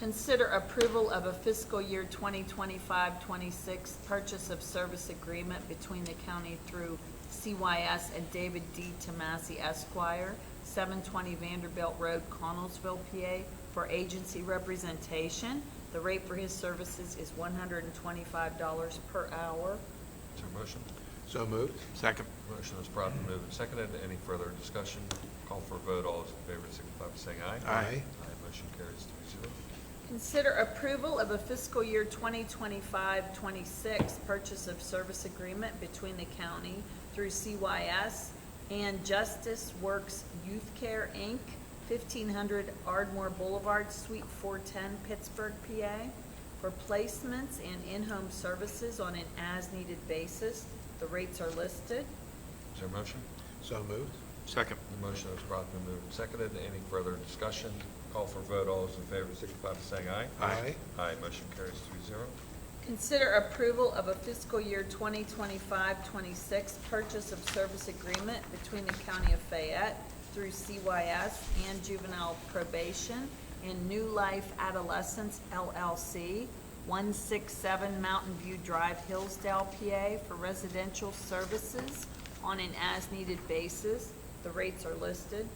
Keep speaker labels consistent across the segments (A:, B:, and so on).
A: Consider approval of a fiscal year 2025-26 purchase of service agreement between the county through CYS and David D. Tomasi Esquire, 720 Vanderbilt Road, Connellsville, PA, for agency representation. The rate for his services is $125 per hour.
B: Is there a motion?
C: So moved.
D: Second.
B: Motion is promptly moved and seconded. Any further discussion? Call for a vote. All those in favor signify by saying aye.
C: Aye.
B: Aye, motion carries three zero.
A: Consider approval of a fiscal year 2025-26 purchase of service agreement between the county through CYS and Justice Works Youth Care, Inc., 1500 Ardmore Boulevard, Suite 410, Pittsburgh, PA, for placements and in-home services on an as-needed basis. The rates are listed.
B: Is there a motion?
C: So moved.
D: Second.
B: The motion is promptly moved and seconded. Any further discussion? Call for a vote. All those in favor signify by saying aye.
C: Aye.
B: Aye, motion carries three zero.
A: Consider approval of a fiscal year 2025-26 purchase of service agreement between the County of Fayette through CYS and Juvenile Probation and New Life Adolescents LLC, 167 Mountain View Drive, Hillsdale, PA, for residential services on an as-needed basis. The rates are listed.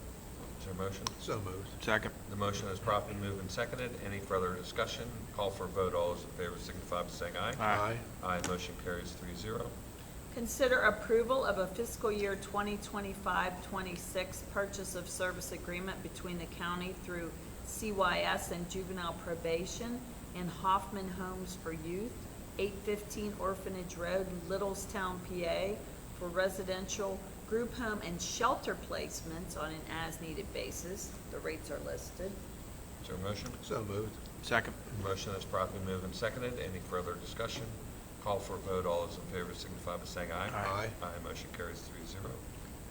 B: Is there a motion?
C: So moved.
D: Second.
B: The motion is promptly moved and seconded. Any further discussion? Call for a vote. All those in favor signify by saying aye.
D: Aye.
B: Aye, motion carries three zero.
A: Consider approval of a fiscal year 2025-26 purchase of service agreement between the county through CYS and Juvenile Probation and Hoffman Homes for Youth, 815 Orphanage Road, Littlestown, PA, for residential group home and shelter placements on an as-needed basis. The rates are listed.
B: Is there a motion?
C: So moved.
D: Second.
B: The motion is promptly moved and seconded. Any further discussion? Call for a vote. All those in favor signify by saying aye.
C: Aye.
B: Aye, motion carries three zero.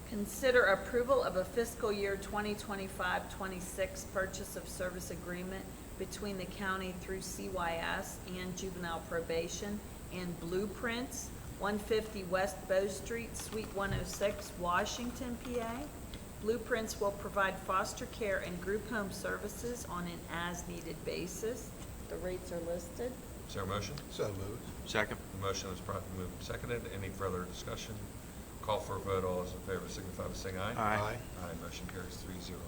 A: Consider approval of a fiscal year 2025-26 purchase of service agreement between the county through CYS and juvenile probation and Blueprints, 150 West Bow Street, Suite 106, Washington, PA. Blueprints will provide foster care and group home services on an as-needed basis. The rates are listed.
B: Is there a motion?
C: So moved.
D: Second.
B: The motion is promptly moved and seconded. Any further discussion? Call for a vote. All those in favor signify by saying aye.
D: Aye.
B: Aye, motion carries three zero.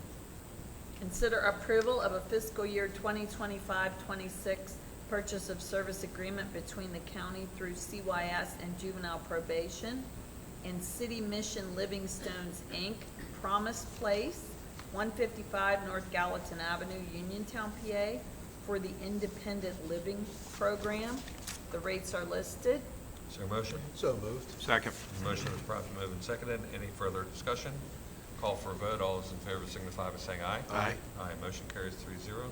A: Consider approval of a fiscal year 2025-26 purchase of service agreement between the county through CYS and juvenile probation and City Mission Livingstone's, Inc., Promise Place, 155 North Gallatin Avenue, Uniontown, PA, for the Independent Living Program. The rates are listed.
B: Is there a motion?
C: So moved.
D: Second.
B: The motion is promptly moved and seconded. Any further discussion? Call for a vote. All those in favor signify by saying aye.
C: Aye.
B: Aye, motion carries three zero.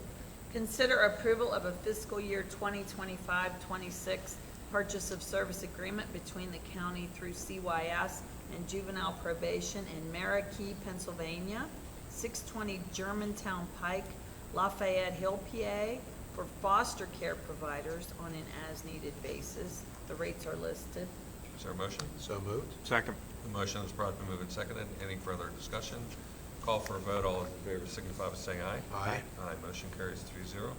A: Consider approval of a fiscal year 2025-26 purchase of service agreement between the county through CYS and juvenile probation in Marquee, Pennsylvania, 620 Germantown Pike, Lafayette Hill, PA, for foster care providers on an as-needed basis. The rates are listed.
B: Is there a motion?
C: So moved.
D: Second.
B: The motion is promptly moved and seconded. Any further discussion? Call for a vote. All in favor signify by saying aye.
C: Aye.
B: Aye, motion carries three zero.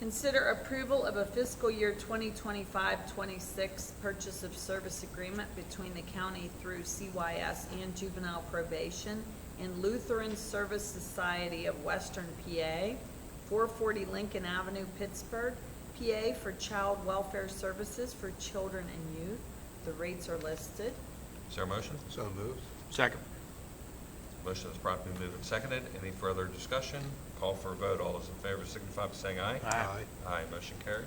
A: Consider approval of a fiscal year 2025-26 purchase of service agreement between the county through CYS and juvenile probation and Lutheran Service Society of Western PA, 440 Lincoln Avenue, Pittsburgh, PA for child welfare services for children and youth. The rates are listed.
B: Is there a motion?
C: So moved.
D: Second.
B: Motion is promptly moved and seconded. Any further discussion? Call for a vote. All those in favor signify by saying aye.
D: Aye.
B: Aye, motion carries.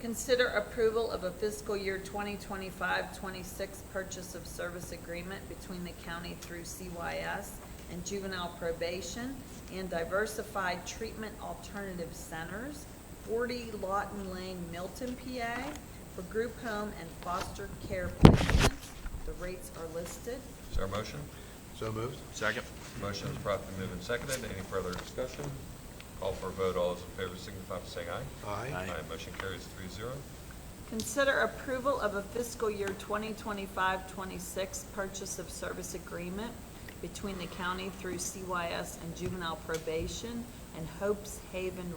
A: Consider approval of a fiscal year 2025-26 purchase of service agreement between the county through CYS and juvenile probation and diversified treatment alternative centers, 40 Lawton Lane, Milton, PA, for group home and foster care placements. The rates are listed.
B: Is there a motion?
C: So moved.
D: Second.
B: Motion is promptly moved and seconded. Any further discussion? Call for a vote. All those in favor signify by saying aye.
C: Aye.
B: Aye, motion carries three zero.
A: Consider approval of a fiscal year 2025-26 purchase of service agreement between the county through CYS and juvenile probation and Hope's Haven